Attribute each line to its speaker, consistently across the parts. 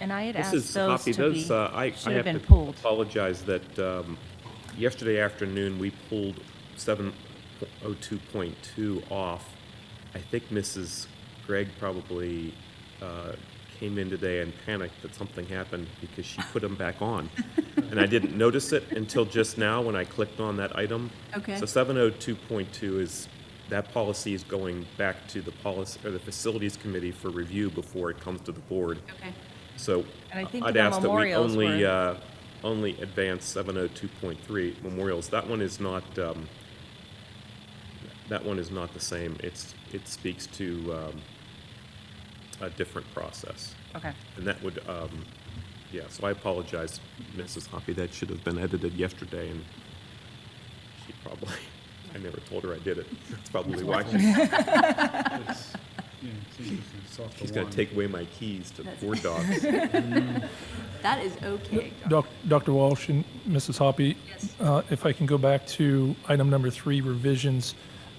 Speaker 1: And I had
Speaker 2: This
Speaker 1: asked
Speaker 2: is
Speaker 1: those
Speaker 2: Hoppy,
Speaker 1: to be,
Speaker 2: those, uh, I, I
Speaker 1: should have
Speaker 2: have
Speaker 1: been
Speaker 2: to
Speaker 1: pulled.
Speaker 2: apologize that, um, yesterday afternoon, we pulled seven oh two point two off. I think Mrs. Gregg probably, uh, came in today and panicked that something happened because she put them back on. And I didn't notice it until just now when I clicked on that item.
Speaker 3: Okay.
Speaker 2: So seven oh two point two is, that policy is going back to the policy, or the facilities committee for review before it comes to the board.
Speaker 3: Okay.
Speaker 2: So
Speaker 1: And I think
Speaker 2: I'd
Speaker 1: the
Speaker 2: ask that we
Speaker 1: memorials
Speaker 2: only,
Speaker 1: were-
Speaker 2: uh, only advance seven oh two point three memorials. That one is not, um, that one is not the same. It's, it speaks to, um, a different process.
Speaker 1: Okay,
Speaker 2: And that would, um, yeah, so I apologize, Mrs. Hoppy, that should have been edited yesterday and she probably, I never told her I did it. That's probably why.
Speaker 4: It's- yeah, it's interesting. It's off the
Speaker 2: She's gonna
Speaker 4: wand.
Speaker 2: take away my keys to the
Speaker 3: That's-
Speaker 2: board docs.
Speaker 3: That is okay.
Speaker 5: Doc- Dr. Walsh and Mrs. Hoppy,
Speaker 3: Yes.
Speaker 5: uh, if I can go back to item number three, revisions,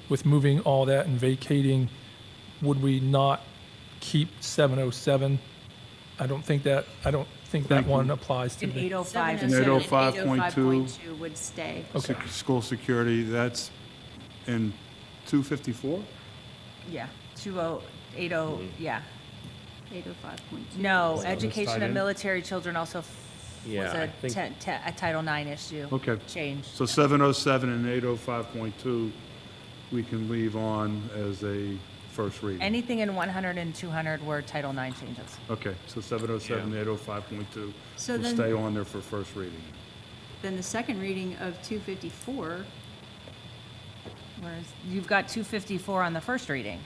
Speaker 5: with moving all that and vacating, would we not keep 707? I don't think that, I don't think that one applies to
Speaker 1: in
Speaker 5: me.
Speaker 1: 805
Speaker 4: And
Speaker 1: is
Speaker 4: 707.
Speaker 3: 805.2
Speaker 4: 805.2
Speaker 3: would stay.
Speaker 5: Okay.
Speaker 4: Sec- School security, that's in 254? oh
Speaker 1: yeah, 2080, oh,
Speaker 2: Mm-hmm.
Speaker 1: yeah.
Speaker 3: 805.2.
Speaker 1: No,
Speaker 4: So it's
Speaker 1: education
Speaker 4: tied
Speaker 1: of
Speaker 4: in?
Speaker 1: military children also f- was
Speaker 2: Yeah, I
Speaker 1: a
Speaker 2: think-
Speaker 1: ten- te- a Title IX issue.
Speaker 4: Okay.
Speaker 1: Change.
Speaker 4: So 707 and 805.2, we can leave on as a first reading.
Speaker 1: Anything in 100 and 200 were Title IX changes.
Speaker 4: Okay, so 707, 805.2
Speaker 3: So
Speaker 4: will
Speaker 3: then-
Speaker 4: stay on there for first reading.
Speaker 3: Then the second reading of 254,
Speaker 1: Whereas you've got 254 on the first reading.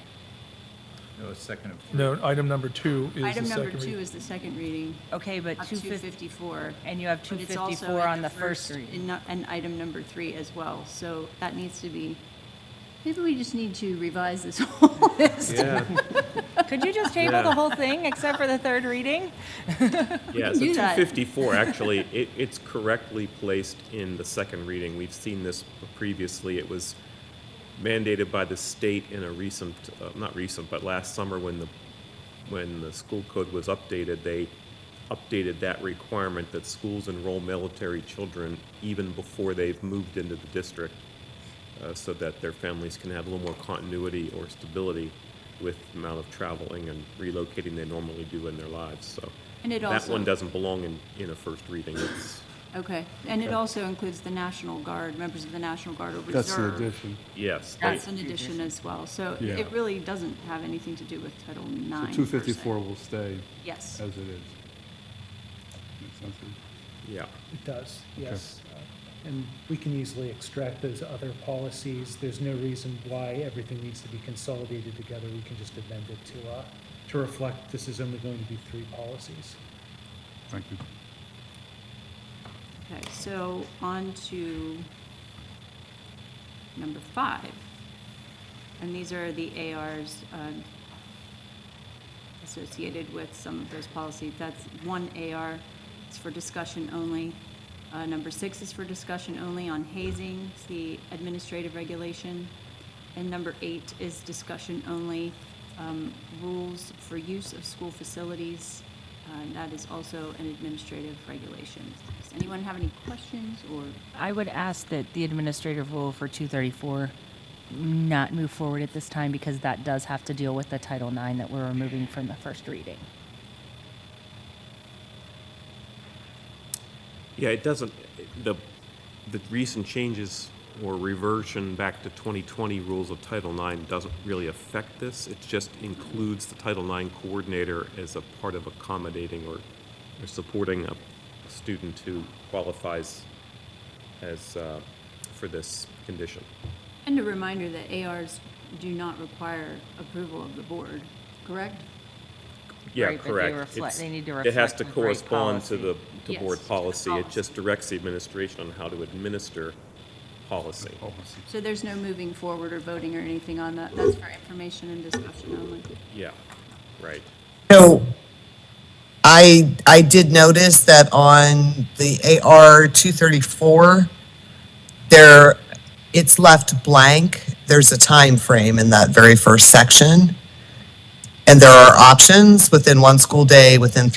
Speaker 6: No, it's second and fourth.
Speaker 5: No, item number two is the
Speaker 3: oh item
Speaker 5: second
Speaker 3: number two
Speaker 5: read-
Speaker 3: is the second reading
Speaker 1: Okay, but
Speaker 3: of
Speaker 1: 250,
Speaker 3: 254.
Speaker 1: and you have
Speaker 3: but it's also
Speaker 1: 254
Speaker 3: in
Speaker 1: on the first
Speaker 3: and
Speaker 1: reading.
Speaker 3: not- And item number three as well. So that needs to be, maybe we just need to revise this whole list.
Speaker 2: Yeah,
Speaker 1: Could you just table the
Speaker 2: Yeah.
Speaker 1: whole thing except for the third reading?
Speaker 2: yeah,
Speaker 3: can
Speaker 2: so
Speaker 3: do
Speaker 2: two
Speaker 3: that.
Speaker 2: fifty-four, actually, it, it's correctly placed in the second reading. We've seen this previously. It was mandated by the state in a recent, uh, not recent, but last summer when the, when the school code was updated, they updated that requirement that schools enroll military children even before they've moved into the district, uh, so that their families can have a little more continuity or stability with the amount of traveling and relocating they normally do in their lives, so.
Speaker 3: And it
Speaker 2: That one
Speaker 3: also-
Speaker 2: doesn't belong in, in a first reading. It's,
Speaker 3: Okay. And it also includes the National Guard, members of the National Guard or Reserve.
Speaker 4: That's the addition.
Speaker 2: yes. they-
Speaker 3: That's an addition as well, so
Speaker 4: Yeah.
Speaker 3: it really doesn't have anything to do with Title IX.
Speaker 4: So
Speaker 3: per se.
Speaker 4: 254 will stay
Speaker 3: Yes,
Speaker 4: as it is. Makes sense?
Speaker 2: Yeah.
Speaker 7: It does, yes. Uh, And we can easily extract those other policies. There's no reason why everything needs to be consolidated together. We can just amend it to, uh, to reflect this is only going to be three policies.
Speaker 4: Thank you.
Speaker 3: okay, so on to number five. And these are the ARs um, associated with some of those policies. That's one AR, it's for discussion only. Uh, Number six is for discussion only on hazing, it's the administrative regulation. And number eight is discussion only, um, rules for use of school facilities. Uh, and That is also an administrative regulation. Does anyone have any questions or,
Speaker 1: I would ask that the administrative rule for 234 not move forward at this time because that does have to deal with the Title IX that we're removing from the first reading.
Speaker 2: Yeah, it doesn't, the, the recent changes or reversion back to 2020 rules of Title IX doesn't really affect this. It just includes the Title IX coordinator as a part of accommodating or, or supporting a student who qualifies as, uh, for this condition.
Speaker 3: and a reminder that ARs do not require approval of the board, correct?
Speaker 2: Yeah,
Speaker 1: Right, but they
Speaker 2: correct.
Speaker 1: reflect-
Speaker 2: It's-
Speaker 1: they need to
Speaker 2: It has
Speaker 1: reflect
Speaker 2: to
Speaker 1: the right
Speaker 2: correspond to the,
Speaker 1: policy.
Speaker 2: to
Speaker 3: Yes,
Speaker 2: board
Speaker 3: to the
Speaker 2: policy. It
Speaker 3: policy.
Speaker 2: just directs the administration on how to administer policy.
Speaker 4: Policy.
Speaker 3: So there's no moving forward or voting or anything on that? That's for information and discussion only?
Speaker 2: Yeah, right.
Speaker 8: No, I, I did notice that on the AR 234, there, it's left blank. There's a time frame in that very first section. And there are options within one school day, within